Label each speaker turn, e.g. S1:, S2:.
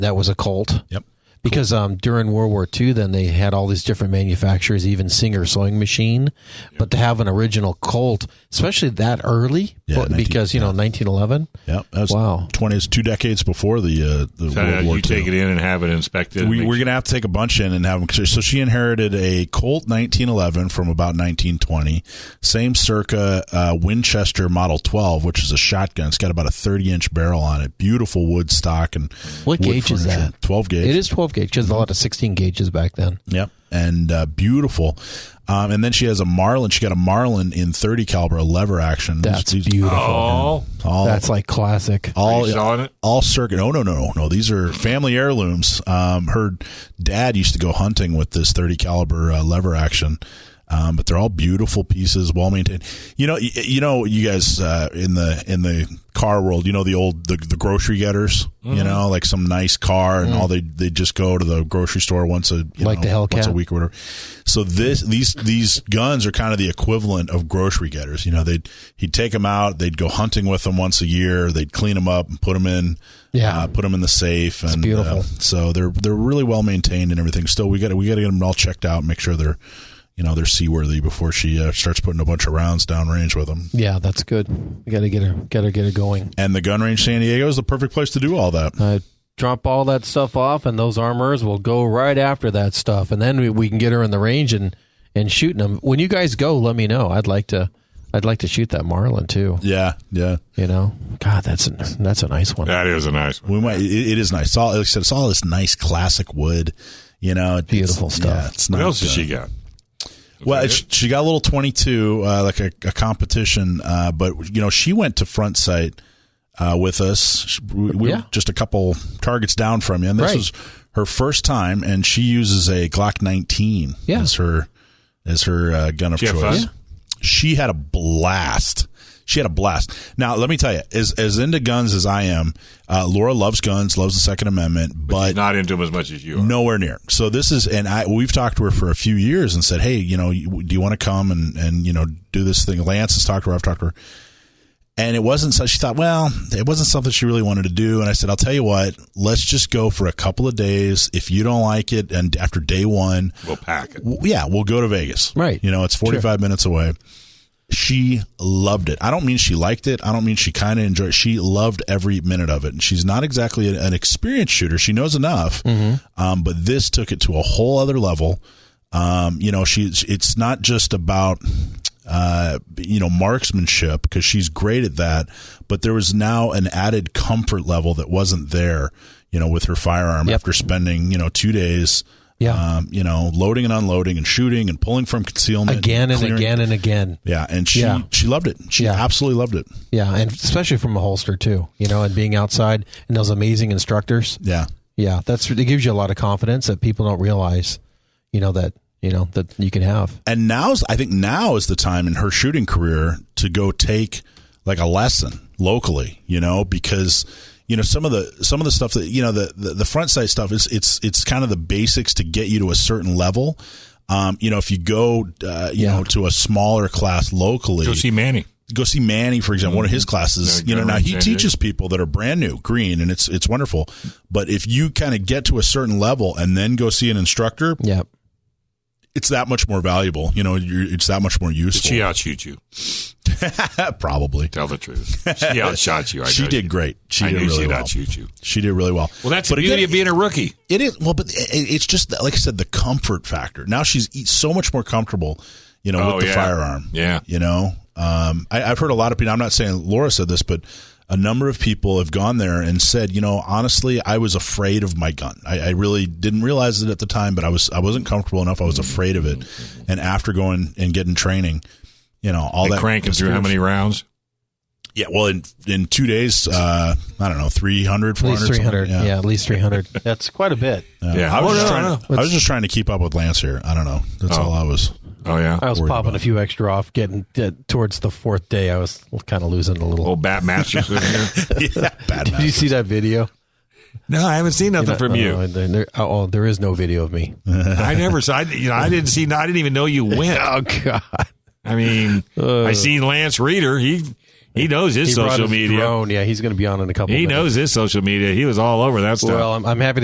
S1: that was a cult.
S2: Yep.
S1: Because um, during World War II, then they had all these different manufacturers, even Singer sewing machine. But to have an original Colt, especially that early,
S2: Yeah,
S1: but-
S2: 19
S1: because you know 1911.
S2: Yep. That was
S1: Wow.
S2: Twenties, two decades before the uh, the
S3: So
S2: World
S3: you
S2: War II.
S3: take it in and have it inspected.
S2: we,
S3: make
S2: we're going
S3: sure-
S2: to have to take a bunch in and have them. 'cause- So she inherited a Colt 1911 from about 1920, same circa uh, Winchester Model 12, which is a shotgun. It's got about a 30 inch barrel on it. Beautiful wood stock and
S1: What
S2: wood
S1: gauge is
S2: furniture.
S1: that?
S2: 12 gauge.
S1: It is 12 gauge. There's a lot of 16 gauges back then.
S2: Yep, and uh, beautiful. Um, and then she has a Marlin. She got a Marlin in 30 caliber lever action. These-
S1: That's
S2: these- Oh.
S1: beautiful.
S3: Oh,
S2: All,
S1: That's like classic.
S2: all,
S3: Are you selling it?
S2: all circuit. Oh no, no, no, no. These are family heirlooms. Um, her dad used to go hunting with this 30 caliber uh, lever action. Um, but they're all beautiful pieces, well maintained. You know, you, you know, you guys uh, in the in the car world, you know the old the, the grocery getters.
S1: Mm-hmm.
S2: You know, like some nice car, and all they they just go to the grocery store once a you
S1: Like
S2: know,
S1: the Hellcat.
S2: once a week or whatever. So this these these guns are kind of the equivalent of grocery getters. You know, they would he'd take them out, they'd go hunting with them once a year, they'd clean them up and put them in.
S1: Yeah.
S2: uh, put them in the safe. And,
S1: beautiful.
S2: uh, so they're they're really well maintained and everything. Still, we got we got to get them all checked out, and make sure they're you know they're seaworthy before she uh, starts putting a bunch of rounds downrange with them.
S1: Yeah, that's good. We got to get her, got to get her going.
S2: And the gun range San Diego is the perfect place to do all that.
S1: Uh, drop all that stuff off, and those armors will go right after that stuff, and then we, we can get her in the range and and shooting them. When you guys go, let me know. I'd like to, I'd like to shoot that Marlin too.
S2: Yeah, yeah.
S1: You know, God, that's a, that's a nice one.
S3: that is a nice one.
S2: We might. It, it is nice. It's all, like I said, it's all this nice classic wood. You know, it's-
S1: Beautiful stuff.
S2: Yeah, it's
S3: What
S2: not,
S3: else has
S2: uh,
S3: she got?
S2: Well,
S3: that
S2: she, she got a little twenty-two, uh, like a, a competition. Uh, but you know, she went to front sight uh, with us. She- We, we
S1: Yeah.
S2: were just a couple targets down from you, and this
S1: Right.
S2: was her first time. And she uses a Glock nineteen
S1: Yeah.
S2: as her as her uh, gun of
S3: She had
S2: choice.
S3: fun? Yeah.
S2: She had a blast. She had a blast. Now, let me tell you, as as into guns as I am, uh, Laura loves guns, loves the Second Amendment, but
S3: Not into them as much as you are.
S2: nowhere near. So this is, and I we've talked to her for a few years and said, hey, you know, you- do you want to come and and you know do this thing? Lance has talked to her. I've talked to her, and it wasn't. So she thought, well, it wasn't something she really wanted to do. And I said, I'll tell you what, let's just go for a couple of days. If you don't like it, and after day one,
S3: We'll pack it.
S2: w- yeah, we'll go to Vegas.
S1: Right.
S2: You know, it's 45 minutes away. She loved it. I don't mean she liked it. I don't mean she kind of enjoyed it. She loved every minute of it. And she's not exactly an, an experienced shooter. She knows enough.
S1: Mm-hmm.
S2: Um, but this took it to a whole other level. Um, you know, she's, it's not just about, uh, you know, marksmanship because she's great at that. But there was now an added comfort level that wasn't there, you know, with her firearm
S1: Yep.
S2: after spending, you know, two days
S1: Yeah.
S2: um, you know, loading and unloading and shooting and pulling from concealment
S1: again and
S2: clearing-
S1: again and again.
S2: Yeah, and she
S1: Yeah.
S2: she loved it. She
S1: Yeah.
S2: absolutely loved it.
S1: Yeah, and especially from a holster too. You know, and being outside and those amazing instructors.
S2: Yeah,
S1: Yeah, that's it gives you a lot of confidence that people don't realize. You know that you know that you can have.
S2: and now's I think now is the time in her shooting career to go take like a lesson locally, you know, because you know some of the some of the stuff that you know the the, the front side stuff is it's it's kind of the basics to get you to a certain level. Um, you know, if you go, uh, you
S1: Yeah.
S2: know, to a smaller class locally,
S3: Go see Manny.
S2: go see Manny, for example, one of
S3: Mm-hmm.
S2: his classes.
S3: Very
S2: You know,
S3: good.
S2: now he
S3: Very good.
S2: teaches people that are brand new green, and it's it's wonderful. But if you kind of get to a certain level and then go see an instructor,
S1: Yeah.
S2: it's that much more valuable. You know, you're, it's that much more
S3: Did she
S2: useful.
S3: outshoot you?
S2: Probably,
S3: Tell the truth. She outshot you. I
S2: she
S3: know
S2: did
S3: you.
S2: great. She
S3: I
S2: did
S3: knew
S2: really
S3: she'd
S2: well.
S3: outshoot you.
S2: She did really well.
S3: Well, that's
S2: but
S3: the beauty
S2: again,
S3: of being a rookie.
S2: It is well, but it, it's just that, like I said, the comfort factor. Now she's e- so much more comfortable, you know,
S3: Oh,
S2: with the
S3: yeah.
S2: firearm.
S3: Yeah.
S2: you know, um, I, I've heard a lot of people. I'm not saying Laura said this, but a number of people have gone there and said, you know, honestly, I was afraid of my gun. I, I really didn't realize it at the time, but I was I wasn't comfortable enough. I was afraid of it, and after going and getting training. You know all
S3: And
S2: that
S3: cranking through how many rounds?
S2: Yeah, well, in in two days, uh, I don't know, 300,
S1: At
S2: 400,
S1: least three
S2: something.
S1: hundred. Yeah. at least three hundred. That's quite a bit.
S2: Yeah.
S3: Yeah.
S2: I was,
S3: Oh,
S2: just
S3: no,
S2: trying,
S3: no.
S2: I was just trying to keep up with Lance here. I don't know. That's all I was.
S3: Oh
S1: I
S3: yeah.
S1: was
S2: Worried
S1: popping
S2: about
S1: a few extra off, getting uh, towards the fourth day. I was kind of losing a little.
S3: Old Bat Masters in here.
S2: yeah, bad
S1: Did you
S2: man.
S1: see that video?
S3: No, I haven't seen nothing from you.
S1: Oh, there, there- oh, there is no video of me.
S3: I never saw. I, you know, I didn't see. I didn't even know you went.
S1: Oh, God.
S3: I mean, I seen Lance Reeder. He He knows his
S1: Uh. He brought
S3: social
S1: his
S3: media.
S1: drone. Yeah, he's going to be on in a couple.
S3: He
S1: minutes.
S3: knows his social media. He was all over that stuff.
S1: Well, I'm, I'm happy.